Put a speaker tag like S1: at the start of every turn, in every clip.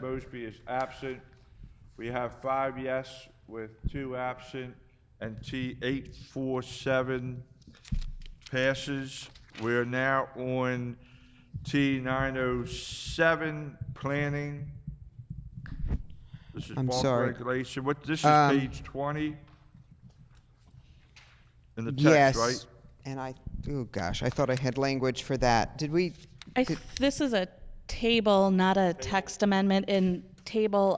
S1: Mosby is absent. We have five yes with two absent, and T eight four seven passes. We're now on T nine oh seven, planning. This is
S2: I'm
S1: bulk
S2: sorry.
S1: regulation. What, this is
S2: Um,
S1: page twenty? In the
S2: yes.
S1: text, right?
S2: And I, oh gosh, I thought I had language for that. Did we?
S3: I,
S2: did-
S3: th- this is a table, not a text amendment. In Table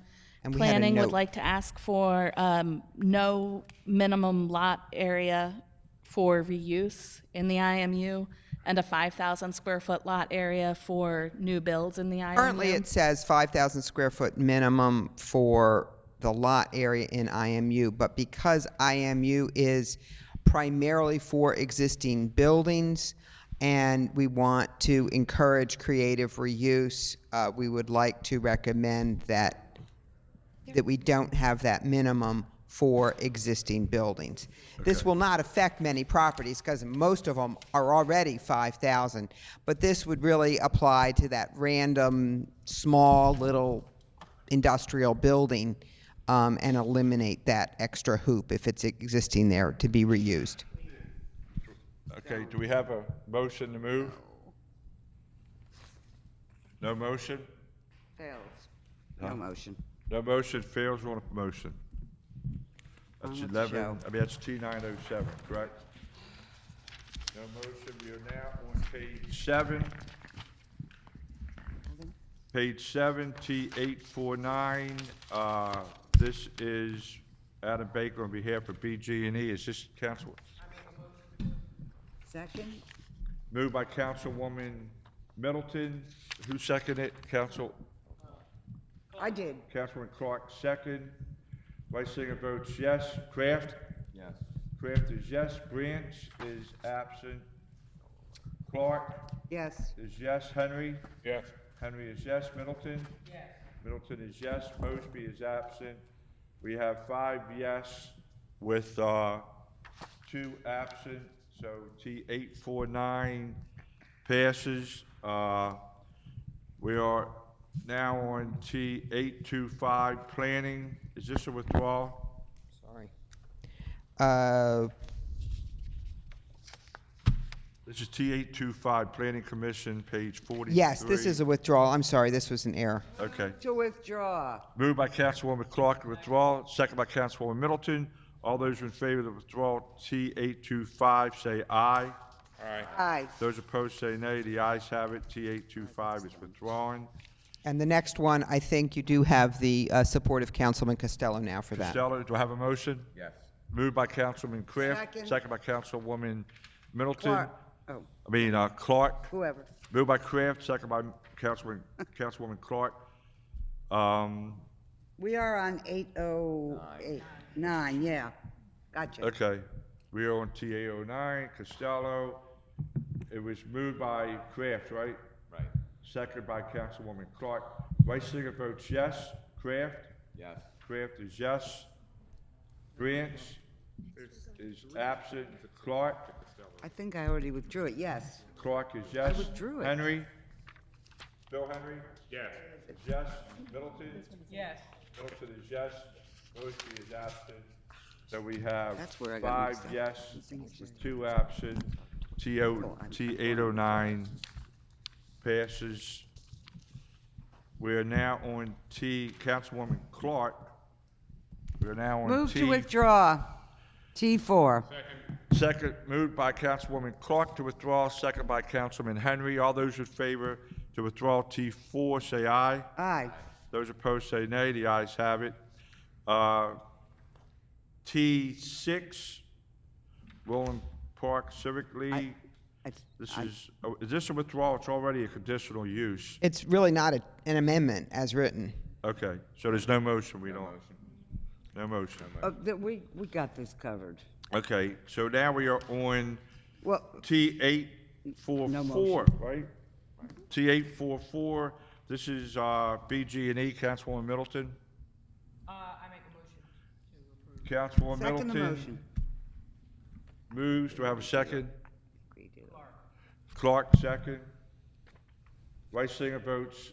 S2: And we had a
S3: planning
S2: note.
S3: would like to ask for um, no minimum lot area for reuse in the IMU and a 5,000 square foot lot area for new builds in the IMU.
S2: Currently, it says 5,000 square foot minimum for the lot area in IMU, but because IMU is primarily for existing buildings and we want to encourage creative reuse, uh, we would like to recommend that, that we don't have that minimum for existing buildings. This will not affect many properties because most of them are already 5,000, but this would really apply to that random, small, little industrial building um, and eliminate that extra hoop if it's existing there to be reused.
S1: Okay, do we have a motion to move? No motion?
S4: Fails. No motion.
S1: No motion fails on a motion. That's
S4: I'll let you
S1: eleven,
S4: show.
S1: I mean, that's T nine oh seven, correct? No motion, we are now on page seven. Page seven, T eight four nine, uh, this is Adam Baker on behalf of BG and E, is this council?
S4: Second?
S1: Moved by Councilwoman Middleton, who seconded it? Council,
S4: I did.
S1: Councilman Clark, second. Vice Singer votes yes. Kraft? Yes. Kraft is yes. Branch is absent. Clark
S4: Yes.
S1: is yes. Henry? Yes. Henry is yes. Middleton? Yes. Middleton is yes. Mosby is absent. We have five yes with, uh, two absent, so T eight four nine passes. Uh, we are now on T eight two five, planning. Is this a withdrawal?
S2: Sorry. Uh,
S1: This is T eight two five, Planning Commission, page forty-three.
S2: yes, this is a withdrawal. I'm sorry, this was an error.
S1: Okay.
S4: To withdraw.
S1: Moved by Councilwoman Clark, withdrawal, second by Councilwoman Middleton. All those in favor of the withdrawal, T eight two five, say aye.
S4: Aye.
S1: Those opposed, say nay. The ayes have it. T eight two five is withdrawn.
S2: And the next one, I think you do have the uh, support of Councilman Costello now for that.
S1: Costello, do I have a motion? Yes. Moved by Councilman Kraft,
S4: Second.
S1: second by Councilwoman Middleton,
S4: Clark. Oh,
S1: I mean, uh, Clark.
S4: whoever.
S1: Moved by Kraft, second by Councilman, Councilwoman Clark. Um,
S4: We are on eight oh eight, nine, yeah. Gotcha.
S1: Okay, we are on TA 09, Costello. It was moved by Kraft, right? Right. Second by Councilwoman Clark. Vice Singer votes yes. Kraft? Yes. Kraft is yes. Branch is absent. Clark?
S4: I think I already withdrew it, yes.
S1: Clark is yes.
S4: withdrew it.
S1: Henry? Bill Henry? Yes. Is yes. Middleton? Yes. Middleton is yes. Mosby is absent. So we have
S4: That's where I got
S1: five
S4: mixed up.
S1: yes,
S4: I think it's just-
S1: two absent. TO,
S4: Oh, I'm-
S1: T eight oh nine passes. We're now on T, Councilwoman Clark. We're now on
S4: Move
S1: T.
S4: to withdraw. T four.
S1: Second, moved by Councilwoman Clark to withdraw, second by Councilman Henry. All those in favor to withdraw T4, say aye.
S4: Aye.
S1: Those opposed, say nay. The ayes have it. Uh, T6, Roland Park Civic League.
S4: I-
S1: This
S4: I-
S1: is, oh, is this a withdrawal? It's already a conditional use.
S2: It's really not a, an amendment as written.
S1: Okay, so there's no motion, we don't? No motion.
S4: uh, th- We, we got this covered.
S1: Okay, so now we are on
S4: Well,
S1: T eight four
S4: No
S1: four,
S4: motion.
S1: right? T eight four four, this is, uh, BG and E, Councilwoman Middleton. Uh, I make a motion to approve. Councilwoman
S4: second the
S1: Middleton
S4: motion.
S1: moves, do I have a second?
S4: We do.
S1: Clark, second. Rice Singer votes